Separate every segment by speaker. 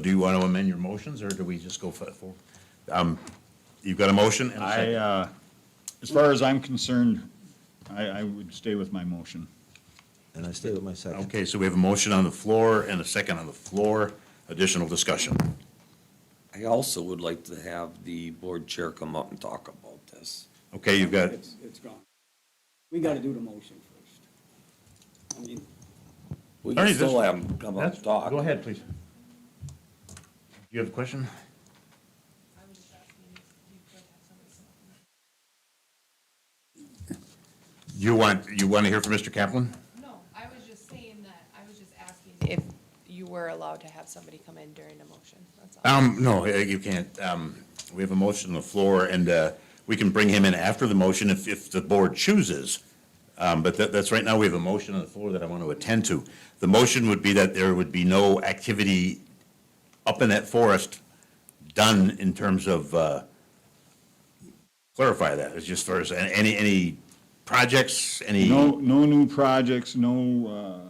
Speaker 1: Do you want to amend your motions, or do we just go for, for- um, you've got a motion and a
Speaker 2: I,
Speaker 1: second?
Speaker 2: uh, as far as I'm concerned, I, I would stay with my motion.
Speaker 3: And I stay with my second.
Speaker 1: Okay, so we have a motion on the floor and a second on the floor. Additional discussion.
Speaker 4: I also would like to have the board chair come up and talk about this.
Speaker 1: Okay, you've got,
Speaker 5: It's, it's gone. We gotta do the motion first. I mean,
Speaker 4: We
Speaker 1: Ernie,
Speaker 4: can
Speaker 1: this-
Speaker 4: still have him come up and talk.
Speaker 1: go ahead, please. You have a question?
Speaker 6: I'm just asking if you could have somebody come up and
Speaker 1: You want, you want to hear from Mr. Kaplan?
Speaker 6: No, I was just saying that, I was just asking if you were allowed to have somebody come in during a motion, that's all.
Speaker 1: Um, no, eh, you can't. Um, we have a motion on the floor, and, uh, we can bring him in after the motion if, if the board chooses. Um, but that, that's right now, we have a motion on the floor that I want to attend to. The motion would be that there would be no activity up in that forest done in terms of, uh, clarify that, it's just first, a- any, any projects, any?
Speaker 2: No, no new projects, no, uh,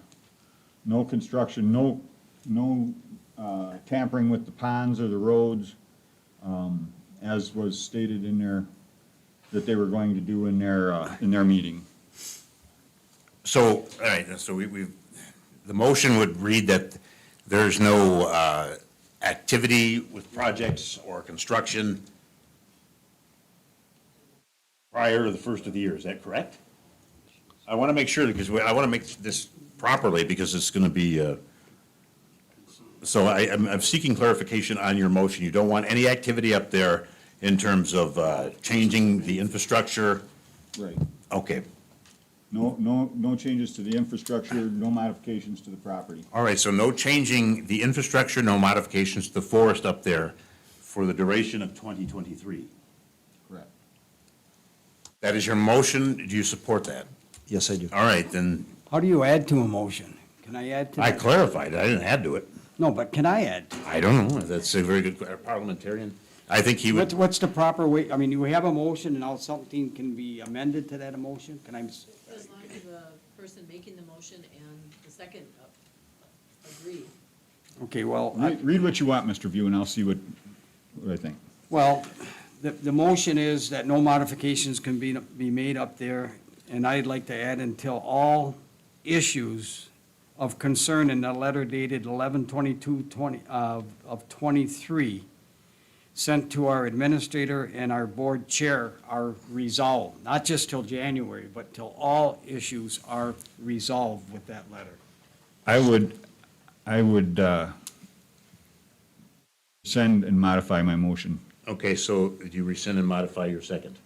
Speaker 2: no construction, no, no uh, tampering with the ponds or the roads, um, as was stated in their, that they were going to do in their, uh, in their meeting.
Speaker 1: So, all right, so we, we, the motion would read that there's no, uh, activity with projects or construction prior to the first of the year, is that correct? I want to make sure, because we- I want to make this properly, because it's going to be, uh, so I, I'm, I'm seeking clarification on your motion. You don't want any activity up there in terms of, uh, changing the infrastructure?
Speaker 2: Right.
Speaker 1: Okay,
Speaker 2: No, no, no changes to the infrastructure, no modifications to the property.
Speaker 1: All right, so no changing the infrastructure, no modifications to the forest up there for the duration of 2023.
Speaker 2: Correct.
Speaker 1: That is your motion. Do you support that?
Speaker 3: Yes, I do.
Speaker 1: All right, then
Speaker 5: how do you add to a motion? Can I add to?
Speaker 1: I
Speaker 5: that?
Speaker 1: clarified. I didn't add to it.
Speaker 5: No, but can I add?
Speaker 1: I don't know. That's a very good que- parliamentarian. I think he
Speaker 5: What's,
Speaker 1: would,
Speaker 5: what's the proper way, I mean, you have a motion and now something can be amended to that motion? Can I, s-
Speaker 7: As long as the person making the motion and the second uh, agree.
Speaker 5: okay, well, I-
Speaker 2: Read read what you want, Mr. View, and I'll see what, what I think.
Speaker 5: well, the, the motion is that no modifications can be, be made up there. And I'd like to add until all issues of concern in the letter dated eleven twenty-two twenty, uh, of twenty-three sent to our administrator and our board chair are resolved, not just till January, but till all issues are resolved with that letter.
Speaker 2: I would, I would uh, send and modify my motion.
Speaker 1: okay, so do you rescind and modify your second?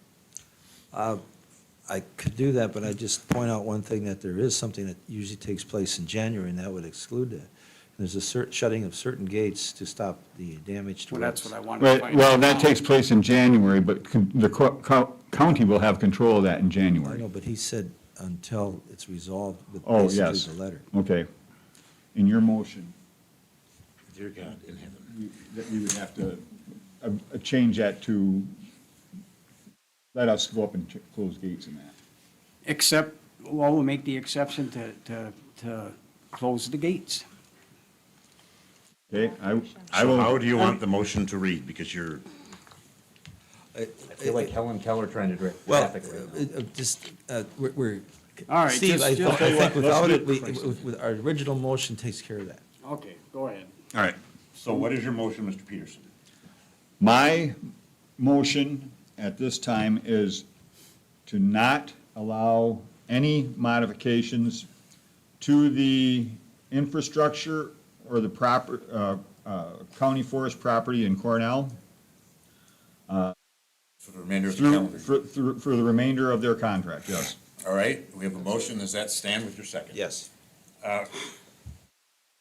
Speaker 3: I could do that, but I just point out one thing, that there is something that usually takes place in January, and that would exclude that. There's a cer, shutting of certain gates to stop the damage to
Speaker 5: Well,
Speaker 3: roads.
Speaker 5: that's what I wanted to
Speaker 2: Well,
Speaker 5: find out.
Speaker 2: well, that
Speaker 5: now.
Speaker 2: takes place in January, but con- the co- co- county will have control of that in
Speaker 3: I know,
Speaker 2: January.
Speaker 3: but he said until it's resolved with
Speaker 2: Oh,
Speaker 3: basically
Speaker 2: yes.
Speaker 3: the letter.
Speaker 2: Okay. In your motion,
Speaker 1: Dear God in heaven.
Speaker 2: you- that you would have to uh, uh, change that to let us go up and ch- close gates and that.
Speaker 5: Except, well, we'll make the exception to, to, to close the gates.
Speaker 2: Okay, I, I
Speaker 1: So how
Speaker 2: will,
Speaker 1: do you want the motion to read? Because you're. I feel like Helen Keller trying to direct
Speaker 3: Well, uh, uh, just, uh, we're- we're.
Speaker 5: All right,
Speaker 3: Steve,
Speaker 5: just-
Speaker 3: I I
Speaker 5: just- I'll tell you
Speaker 3: think
Speaker 2: what,
Speaker 3: without
Speaker 2: let's
Speaker 3: it,
Speaker 2: do
Speaker 3: we,
Speaker 2: it, Christ.
Speaker 3: with, our original motion takes care of that.
Speaker 5: Okay, go ahead.
Speaker 2: all right.
Speaker 1: So what is your motion, Mr. Peterson?
Speaker 2: My motion at this time is to not allow any modifications to the infrastructure or the proper, uh, uh, county forest property in Cornell
Speaker 1: For the remainder of the
Speaker 2: through,
Speaker 1: calendar.
Speaker 2: for, through- for the remainder of their contract, yes.
Speaker 1: All right, we have a motion. Does that stand with your second? Uh,
Speaker 3: Yes.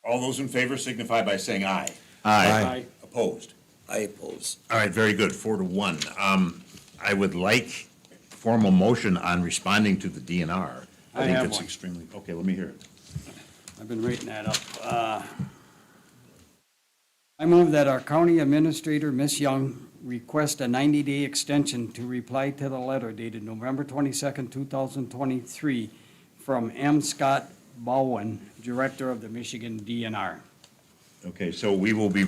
Speaker 1: All those in favor signify by saying aye.
Speaker 5: Aye.
Speaker 1: Opposed?
Speaker 4: I oppose.
Speaker 1: All right, very good, four to one. Um, I would like formal motion on responding to the DNR.
Speaker 5: I
Speaker 1: think
Speaker 5: have
Speaker 1: it's
Speaker 5: one.
Speaker 1: Extremely, okay, let me hear it.
Speaker 5: I've been writing that up. Uh, I move that our county administrator, Ms. Young, request a 90-day extension to reply to the letter dated November 22nd, 2023, from M. Scott Bowen, Director of the Michigan DNR.
Speaker 1: Okay, so we will be